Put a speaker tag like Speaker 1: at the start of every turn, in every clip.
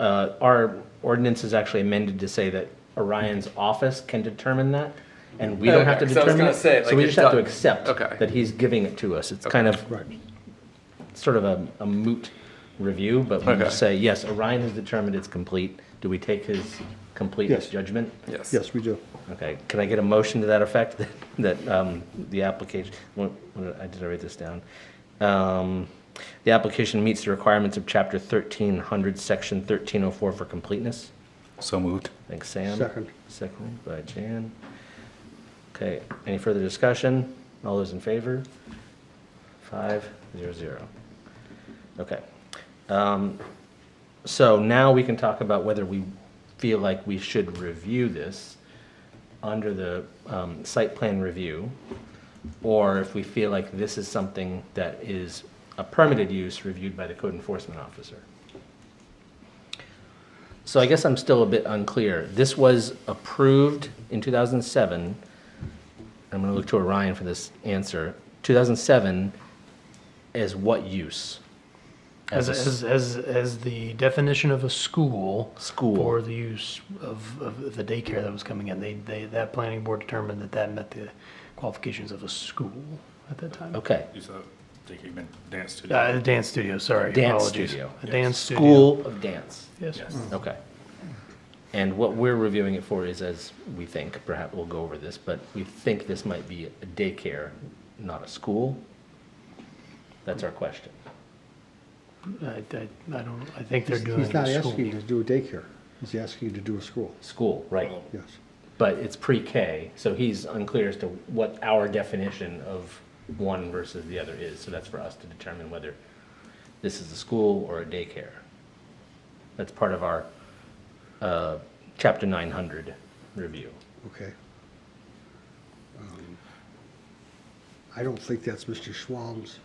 Speaker 1: uh, our ordinance is actually amended to say that Orion's office can determine that, and we don't have to
Speaker 2: Okay, 'cause I was
Speaker 1: determine
Speaker 2: gonna
Speaker 1: it.
Speaker 2: say,
Speaker 1: So
Speaker 2: like,
Speaker 1: we
Speaker 2: it
Speaker 1: just have to
Speaker 2: does-
Speaker 1: accept
Speaker 2: okay.
Speaker 1: that he's giving it to us. It's kind of, sort of a a moot review, but we
Speaker 2: Okay.
Speaker 1: just say, yes, Orion has determined it's complete. Do we take his completeness
Speaker 3: Yes.
Speaker 1: judgment?
Speaker 2: Yes.
Speaker 3: Yes, we do.
Speaker 1: Okay, can I get a motion to that effect, that- that um, the application, what- what- I did I write this down? Um, The application meets the requirements of Chapter 1300, Section 1304 for completeness?
Speaker 4: So moved.
Speaker 1: Thanks, Sam.
Speaker 3: Second.
Speaker 1: Seconded by Jan. Okay, any further discussion? All those in favor? Five, zero, zero. Okay. Um, So now we can talk about whether we feel like we should review this under the um, site plan review, or if we feel like this is something that is a permitted use reviewed by the code enforcement officer. So I guess I'm still a bit unclear. This was approved in 2007. I'm going to look to Orion for this answer. 2007 is what use?
Speaker 5: As,
Speaker 1: a s-
Speaker 5: as, as, as the definition of a school.
Speaker 1: School.
Speaker 5: For the use of, of the daycare that was coming in, they, they, that planning board determined that that met the qualifications of a school at that time.
Speaker 1: Okay.
Speaker 4: You said, think you meant dance studio.
Speaker 5: Uh, a dance studio, sorry.
Speaker 1: Dance
Speaker 5: apologies.
Speaker 1: studio.
Speaker 5: A dance studio.
Speaker 1: School of dance.
Speaker 5: Yes.
Speaker 1: Okay. And what we're reviewing it for is, as we think, perhaps we'll go over this, but we think this might be a daycare, not a school. That's our question.
Speaker 5: I, I, I don't, I think they're
Speaker 3: He's
Speaker 5: doing
Speaker 3: he's
Speaker 5: it at
Speaker 3: not
Speaker 5: a
Speaker 3: asking you
Speaker 5: school.
Speaker 3: to do a daycare. He's asking you to do a school,
Speaker 1: School, right.
Speaker 3: yes.
Speaker 1: But it's pre-K, so he's unclear as to what our definition of one versus the other is. So that's for us to determine whether this is a school or a daycare. That's part of our uh, Chapter 900 review.
Speaker 3: Okay. Um, I don't think that's Mr. Schwalm's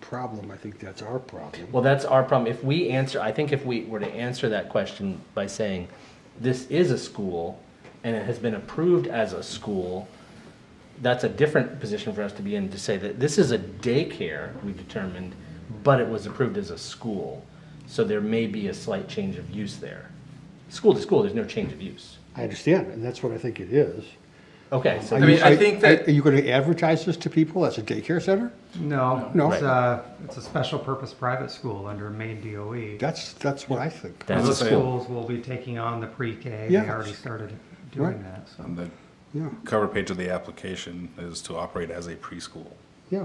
Speaker 3: problem. I think that's our problem.
Speaker 1: Well, that's our problem. If we answer, I think if we were to answer that question by saying, this is a school and it has been approved as a school, that's a different position for us to be in to say that this is a daycare, we determined, but it was approved as a school. So there may be a slight change of use there. School to school, there's no change of use.
Speaker 3: I understand, and that's what I think it is.
Speaker 1: Okay,
Speaker 3: Are
Speaker 1: so,
Speaker 2: mean,
Speaker 3: you-
Speaker 2: I
Speaker 3: are-
Speaker 2: think that-
Speaker 3: Are you gonna advertise this to people as a daycare center?
Speaker 6: No,
Speaker 3: No.
Speaker 6: it's a, it's a special purpose private school under Maine DOE.
Speaker 3: That's, that's what I think.
Speaker 1: That's a
Speaker 6: E. Those
Speaker 1: school.
Speaker 6: schools will be taking on the pre-K, they
Speaker 3: Yes.
Speaker 6: already started doing
Speaker 3: Right.
Speaker 6: that, so.
Speaker 4: On the
Speaker 3: Yeah,
Speaker 4: cover page of the application is to operate as a preschool.
Speaker 3: yeah.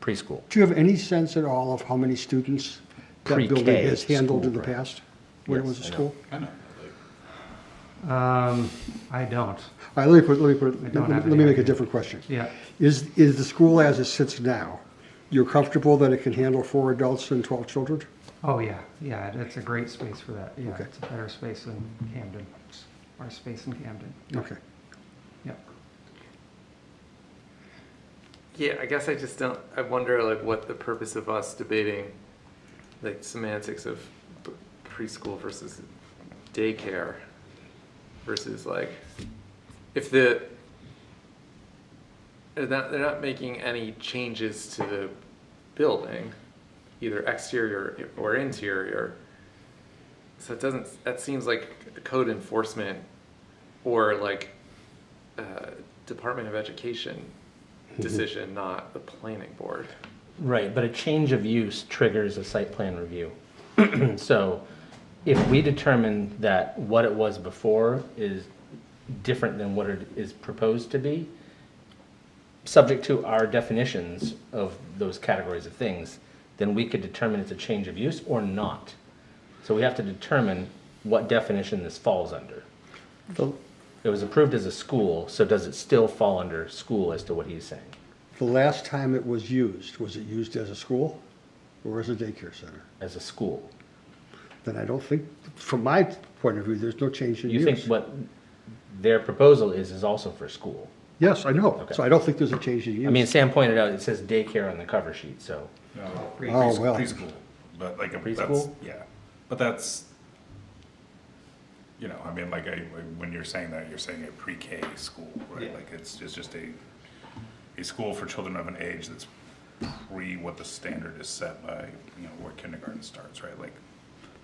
Speaker 1: preschool.
Speaker 3: Do you have any sense at all of how many students that
Speaker 1: Pre-K
Speaker 3: building has
Speaker 1: is
Speaker 3: handled in the
Speaker 1: school, right.
Speaker 3: past? When it
Speaker 1: Yes,
Speaker 3: was a
Speaker 1: I know.
Speaker 3: school?
Speaker 4: I know.
Speaker 6: Um, I don't,
Speaker 3: All right, let me put, let me put,
Speaker 6: don't
Speaker 3: let me-
Speaker 6: have
Speaker 3: let me
Speaker 6: any
Speaker 3: make a
Speaker 6: idea.
Speaker 3: different question.
Speaker 6: yeah,
Speaker 3: Is, is the school as it sits now, you're comfortable that it can handle four adults and 12 children?
Speaker 6: oh, yeah, yeah, it- it's a great space for that, yeah,
Speaker 3: Okay.
Speaker 6: it's a better space than Camden, our space in Camden,
Speaker 3: Okay.
Speaker 6: yeah.
Speaker 2: Yeah, I guess I just don't, I wonder like what the purpose of us debating like semantics of p- preschool versus daycare versus like, if the, they're not, they're not making any changes to the building, either exterior or interior. So it doesn't, that seems like code enforcement or like uh, Department of Education decision, not the planning board.
Speaker 1: Right, but a change of use triggers a site plan review. So if we determine that what it was before is different than what it is proposed to be, subject to our definitions of those categories of things, then we could determine it's a change of use or not. So we have to determine what definition this falls under.
Speaker 3: The,
Speaker 1: It was approved as a school, so does it still fall under school as to what he's saying?
Speaker 3: the last time it was used, was it used as a school or as a daycare center?
Speaker 1: As a school?
Speaker 3: Then I don't think, from my point of view, there's no change in
Speaker 1: You
Speaker 3: use.
Speaker 1: think what their proposal is, is also for school.
Speaker 3: Yes, I know.
Speaker 1: Okay.
Speaker 3: So I don't think there's a change in use.
Speaker 1: I mean, Sam pointed out, it says daycare on the cover sheet, so,
Speaker 4: No,
Speaker 3: Oh, well.
Speaker 4: Preschool, but like, a- that's,
Speaker 1: Preschool?
Speaker 4: yeah, but that's, you know, I mean, like, I, when you're saying that, you're saying a pre-K school, right? Like, it's, it's just a, a school for children of an age that's pre what the standard is set by, you know, where kindergarten starts, right? Like,